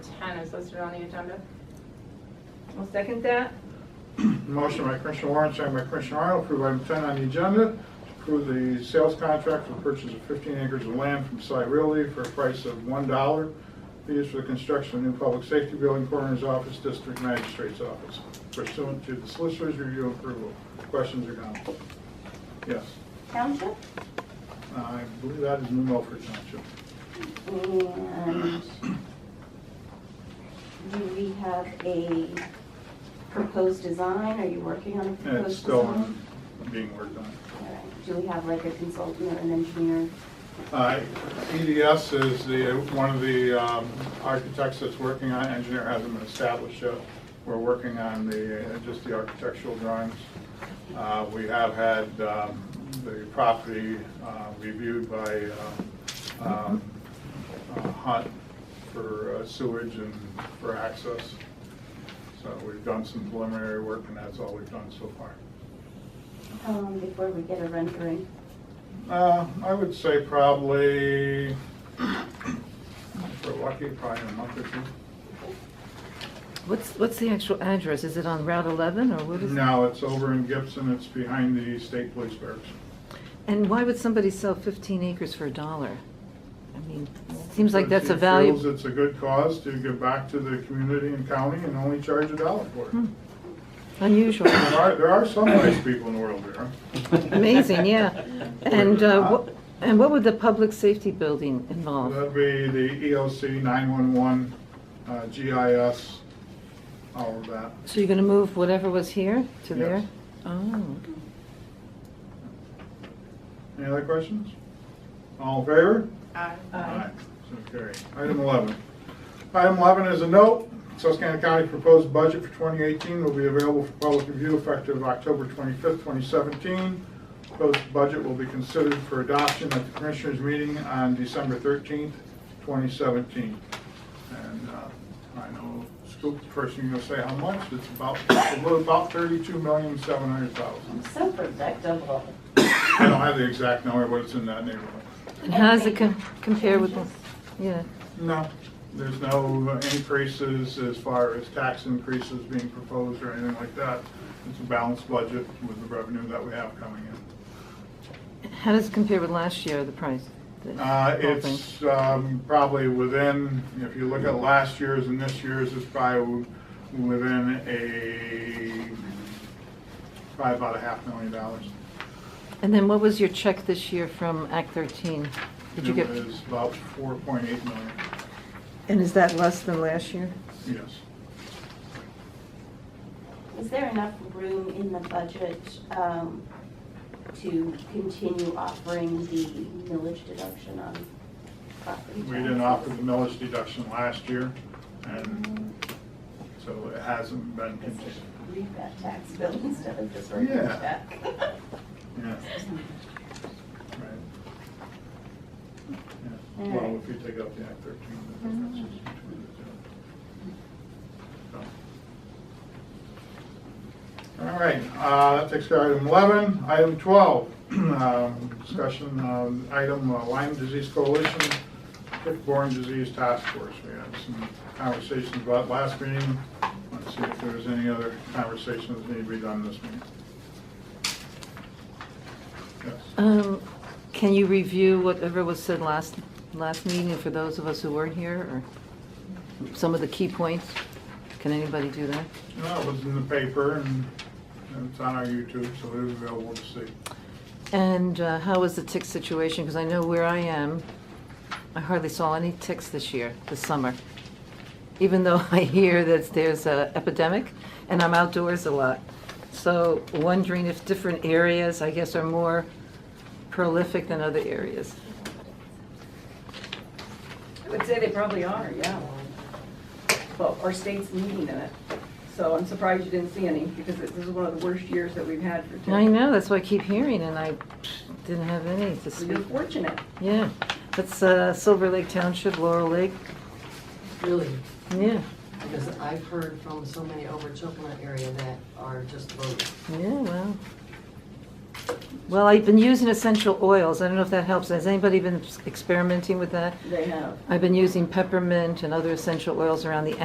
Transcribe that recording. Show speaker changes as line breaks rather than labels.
nine as listed on the agenda.
I'll second that.
Motion by Commissioner Warren, second by Commissioner Arnold, approve item 10 on the agenda, to approve the sales contract for the purchase of 15 acres of land from Cy Realty for a price of $1 to be used for the construction of a new public safety building, coroner's office, district magistrate's office pursuant to the solicitor's review and approval. Questions or comments? Yes.
Township?
I believe that is New Milford Township.
And do we have a proposed design? Are you working on a
And it's
proposed
still
design?
being worked on.
All right. Do we have like a consultant or an engineer?
Uh, EDS is the, one of the um, architects that's working on, engineer hasn't been established yet. We're working on the, uh, just the architectural drawings. Uh, We have had um, the property uh, reviewed by um, um, uh, Hunt for uh, sewage and for access. So we've done some preliminary work, and that's all we've done so far.
How long Um, before we get a rendering?
Uh, I would say probably, if we're lucky, probably in a month or two.
What's, what's the actual address? Is it on Route 11 or what is it?
Now, it's over in Gibson, it's behind the state police barracks.
And why would somebody sell 15 acres for a dollar? I mean, seems like
But
that's
she
a value.
feels it's a good cause to give back to the community and county and only charge a dollar for
Hmm.
it.
Unusual.
There are, there are some nice people in the world there.
Amazing, yeah. And, uh, what- and what would the public safety building involve?
That'd be the E EOC, 911, uh, GIS, all of that.
So you're going to move whatever was here to there?
Yes.
Oh,
Any other questions? All in favor?
Aye.
Aye. So carried. Item 11. Item 11 is a note. Susquehanna County proposed budget for 2018 will be available for public review effective October 25th, 2017. Proposed budget will be considered for adoption at the Commissioners' meeting on December 13th, 2017. And uh, I know, Scoop, first thing you'll say how much, it's about, it's about $32,700,000.
I'm so predictable.
I don't have the exact number, but it's in that neighborhood.
and how does it com- compare with, the- yeah,
No, there's no increases as far as tax increases being proposed or anything like that. It's a balanced budget with the revenue that we have coming in.
how does it compare with last year, the price? the
Uh,
whole thing?
It's um, probably within, if you look at last year's and this year's, it's probably within a, probably about a half million dollars.
And then what was your check this year from Act 13? Did you get,
It was about 4.8 million,
and is that less than last year?
yes.
Is there enough room in the budget um, to continue offering the millage deduction on property taxes? Mm,
We didn't offer the millage deduction last year, and so it hasn't been
Because
continued.
Read that tax bill instead of just writing
Yeah.
a check.
Yeah. Right. Yeah. Well, if you take up the Act 13, the difference is between the two. So. All right, uh, that takes care of item 11. Item 12, um, discussion um, item uh, Lyme Disease Coalition, tick-borne disease task force. We had some conversations about last meeting. Let's see if there's any other conversations that need to be done this meeting. Yes.
Um, Can you review whatever was said last, last meeting for those of us who weren't here, or some of the key points? Can anybody do that?
No, it was in the paper and and it's on our YouTube, so it is available to see.
And uh, how is the tick situation? Because I know where I am, I hardly saw any ticks this year, this summer. Even though I hear that there's a epidemic, and I'm outdoors a lot. So wondering if different areas, I guess, are more prolific than other areas.
I would say they probably are, yeah. Well, our state's leading in it, so I'm surprised you didn't see any, because this is one of the worst years that we've had for. tick.
I know, that's what I keep hearing, and I didn't have any to
You're
speak.
fortunate.
Yeah, that's uh, Silver Lake Township, Laurel Lake,
Really,
yeah,
because I've heard from so many over Chocolate area that are just loaded.
yeah, well. Well, I've been using essential oils, I don't know if that helps, has anybody been experimenting with that?
They have.
I've been using peppermint and other essential oils around the